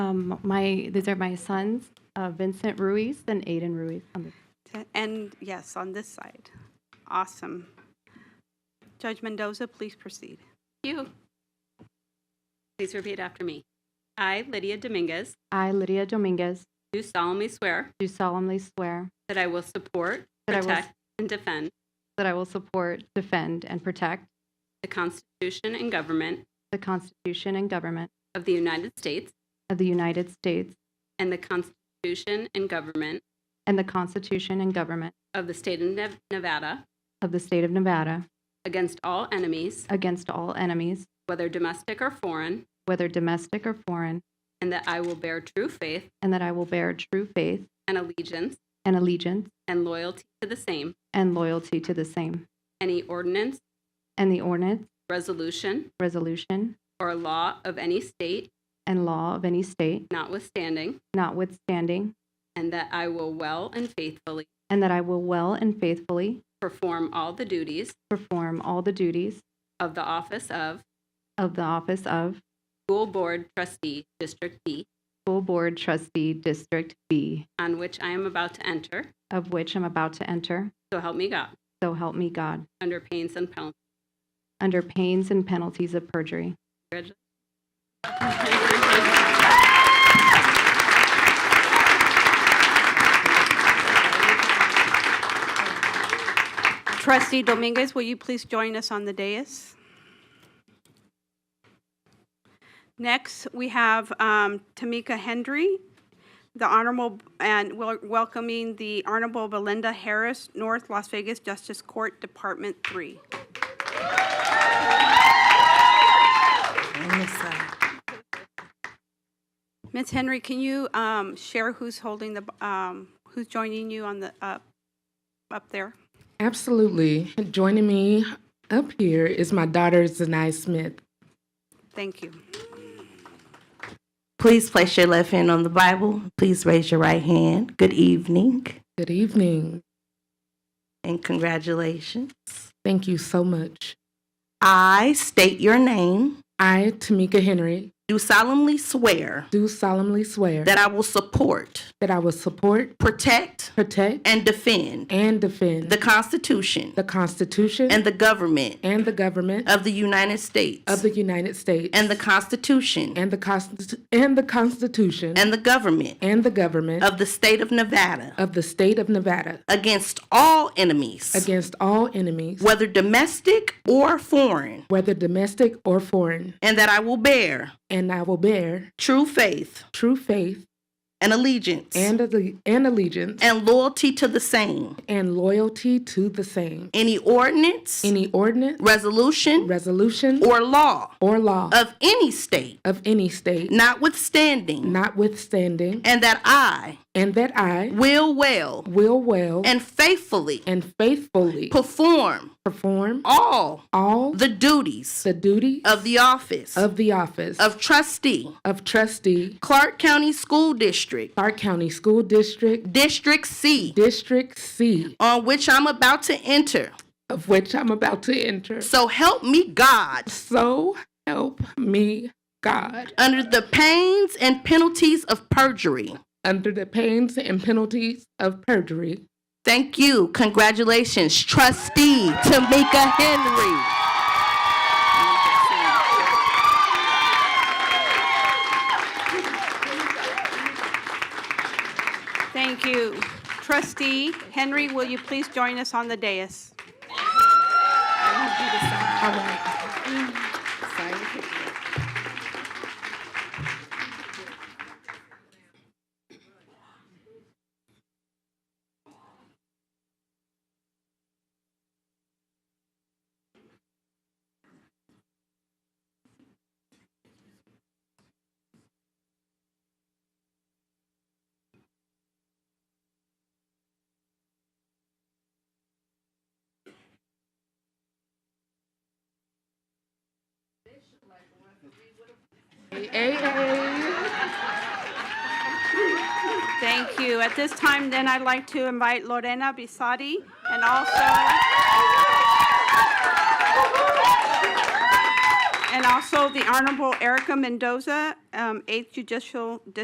um, my, these are my sons, uh, Vincent Ruiz and Aiden Ruiz. Um, on the- To- And yes, on this side. Awesome. Judge Mendoza, please proceed. You. Please repeat after me. I, Lydia Dominguez, I, Lydia Dominguez, do solemnly swear do solemnly swear that I will support, That I will- protect, and defend that I will support, defend, and protect the Constitution and government the Constitution and government of the United States of the United States and the Constitution and government and the Constitution and government of the state of Nev- Nevada of the state of Nevada against all enemies, against all enemies, whether domestic or foreign, whether domestic or foreign, and that I will bear true faith and that I will bear true faith and allegiance and allegiance and loyalty to the same, and loyalty to the same, any ordinance, and the ordinance, resolution, resolution, or law of any state and law of any state, notwithstanding, notwithstanding, and that I will well and faithfully and that I will well and faithfully perform all the duties perform all the duties of the office of of the office of School Board Trustee, District B, School Board Trustee District B, on which I am about to enter, of which I'm about to enter, so help me God, so help me God, under pains and penalties. under pains and penalties of perjury. Congratulations. Trustee Dominguez, will you please join us on the dais? Next, we have um, Tamika Hendry, the Honorable, and wel- welcoming the Honorable Belinda Harris, North Las Vegas Justice Court, Department 3. Ms. Henry, can you um, share who's holding the, um, who's joining you on the, up up there? Absolutely. Joining me up here is my daughter, Zanai Smith. Thank you. Please place your left hand on the Bible. Please raise your right hand. Good evening Good evening. and congratulations. Thank you so much. I state your name, I, Tamika Henry, do solemnly swear do solemnly swear that I will support, that I will support, protect, protect, and defend and defend the Constitution the Constitution and the government and the government of the United of States the United States and the Constitution and the, Constitu- and the Constitution and the government and the government of the state of Nevada of the state of Nevada against all enemies, against all enemies, whether domestic or foreign, whether domestic or foreign, and that I will bear and I will bear true faith true faith and allegiance and, alle- and allegiance and loyalty to the same. and loyalty to the same. Any ordinance, Any ordinance, resolution, resolution, or law or law of any state, of any state, notwithstanding, notwithstanding, and that I and that I will well will well and faithfully and faithfully perform perform all all the duties the duties of the office of the office of trustee, of trustee, Clark County School District, Clark County School District, District C, District C, on which I'm about to enter. of which I'm about to enter. So help me God, So help me God, under the pains and penalties of perjury. under the pains and penalties of perjury. Thank you. Congratulations, trustee Tamika Henry. Thank you. Trustee Henry, will you please join us on the dais? Thank you. At this time, then, I'd like to invite Lorena Bisadi and also... And also the Honorable Erica Mendoza, um, Eighth Judicial District